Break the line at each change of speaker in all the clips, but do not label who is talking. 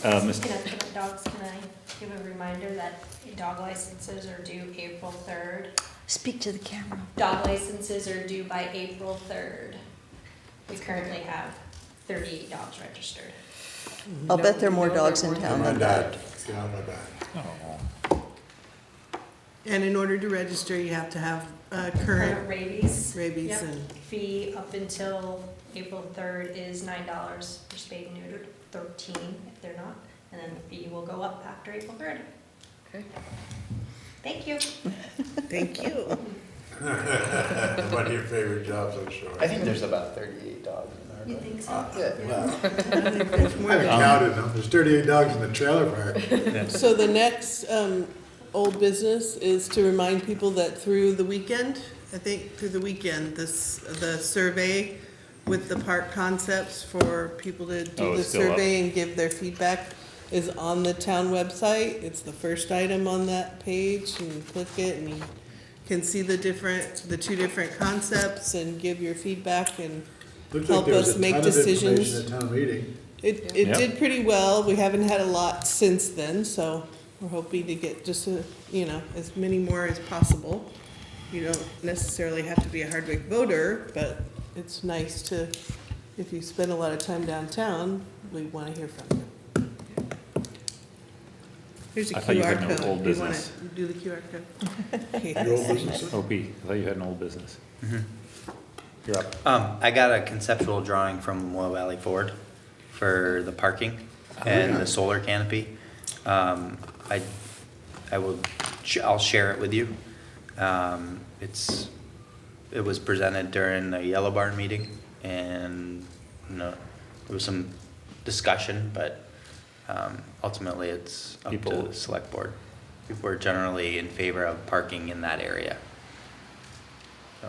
Can I, can I- dogs, can I give a reminder that dog licenses are due April third?
Speak to the camera.
Dog licenses are due by April third. We currently have thirty-eight dogs registered.
I'll bet there are more dogs in town
My
than
dad,
that.
yeah, my dad.
And in order to register, you have to have uh,
Current
current
rabies.
rabies
Yep.
and,
Fee up until April third is nine dollars for spayed and neutered, thirteen if they're not, and then the fee will go up after April third.
Okay.
Thank you.
thank you.
One of your favorite jobs, I'm sure.
I think there's about thirty-eight dogs in there.
You
but-
think so?
Uh,
Yeah.
well,
There's
I
more.
haven't counted them. There's thirty-eight dogs in the trailer park.
So the next um, old business is to remind people that through the weekend, I think through the weekend, this, the survey with the park concepts for people to
Oh,
do the
it's still up.
survey and give their feedback is on the town website. It's the first item on that page. You can click it and you can see the different, the two different concepts and give your feedback and
Looks like
help
there was
us
a ton
make
of
decisions.
information at town meeting.
It, it
Yeah.
did pretty well. We haven't had a lot since then, so we're hoping to get just, a- you know, as many more as possible. You don't necessarily have to be a Hardwick voter, but it's nice to, if you spend a lot of time downtown, we want to hear from you. Here's a
I thought you had
QR
no
code.
old
Do you want
business.
to do the QR code? Okay,
Your old
thanks.
business?
OP, I thought you had an old business.
Mm-hmm.
You're up.
Um, I got a conceptual drawing from Low Valley Ford for the parking
Oh,
and the solar canopy. Um, I, I will, sh- I'll share it with you. Um, it's, it was presented during the Yellow Barn meeting and, you know, there was some discussion, but, um, ultimately it's up to
People-
the select board. People are generally in favor of parking in that area. So.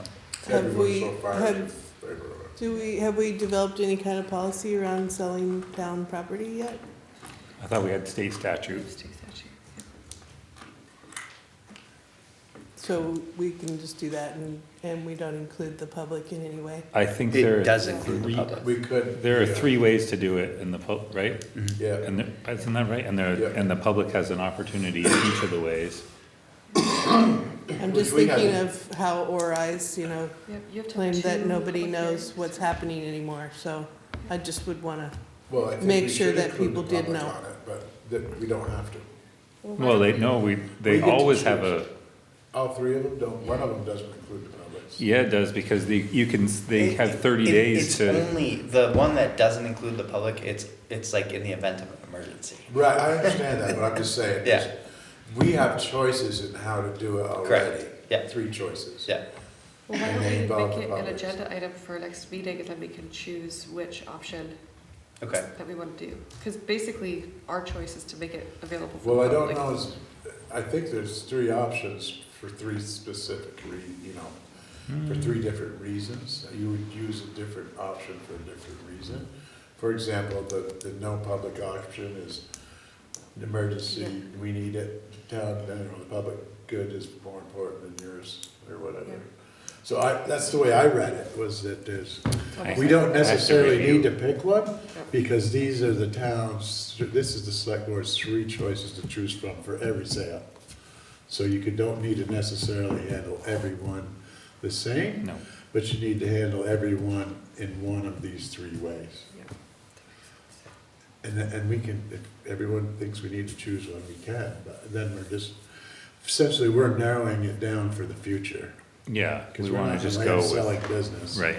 Have
Everyone
we-
so far is
have-
in favor of it.
Do we, have we developed any kind of policy around selling down property yet?
I thought we had state statutes.
So we can just do that and, and we don't include the public in any way?
I think there.
It
are
does include the
three-
public.
We could.
There are
yeah.
three ways to do it in the pub, right?
Yeah,
And, there- isn't that right? And there,
Yeah.
and the public has an opportunity in each of the ways.
I'm
Which
just
we had-
thinking of how ORIs, you know,
Yep, you have to have
claim that
two
nobody
public
knows
hearings.
what's happening anymore, so I just would wanna,
well, I think
Make
we
sure
should
that
include
people
the
did
public
know.
on it, But that, we don't have to.
why
Well,
don't
they,
we-
no, we,
We
they
get to
always have
choose.
a,
All three of them don't, one of them doesn't include the public.
yeah, it does, because the, you can, s- they
It-
have thirty
it-
days
It's
to,
only, the one that doesn't include the public, it's, it's like in the event of an emergency.
Right, I understand that, but I'm just saying.
Yeah.
We have choices in how to do it already.
yeah.
Three choices.
Yeah,
Well, why
And they involve
don't we
the
make it an
public.
agenda item for next meeting and then we can choose which option
okay.
that we want to do? Because basically, our choice is to make it available for
Well, I
the
don't
public.
know, is- I think there's three options for three specific re, you know, for three different reasons. You would use a different option for a different reason. For example, the, the no public option is an emergency, we need it, town, you know, the public good is more important than yours, or
Yeah.
whatever. So I, that's the way I read it, was that there's,
Okay.
we don't
I have to
necessarily
review.
need to pick one, because these are the towns, this is the select board's three choices to choose from for every sale. So you could, don't need to necessarily handle everyone the same,
no.
but you need to handle everyone in one of these three ways.
Yeah.
And, th- and we can, if everyone thinks we need to choose one, we can, but then we're just, essentially, we're narrowing it down for the future.
Yeah,
Because
we
we're
wanna
not
just
just
go with,
selling business.
right,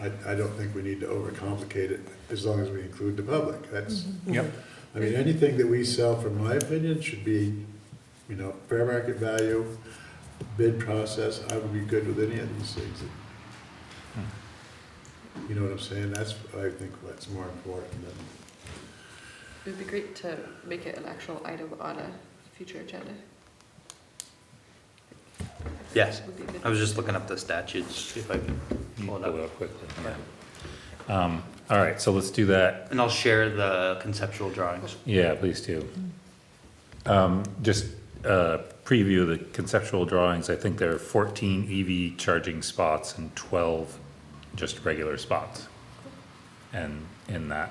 I, I don't think we need to overcomplicate it, as long as we include the public, that's.
yep,
I mean, anything that we sell, from my opinion, should be, you know, fair market value, bid process, I would be good with any of these things.
Hmm.
You know what I'm saying? That's, I think, what's more important than,
It would be great to make it an actual item on a future agenda.
Yes,
Would be good.
I was just looking up the statutes, if I could
you
pull it
pull it
up.
up quickly, yeah. Um, all right, so let's do that
And I'll share the conceptual drawings.
Yeah, please do. Um, Just uh, preview the conceptual drawings. I think there are 14 EV charging spots and 12 just regular spots. And in that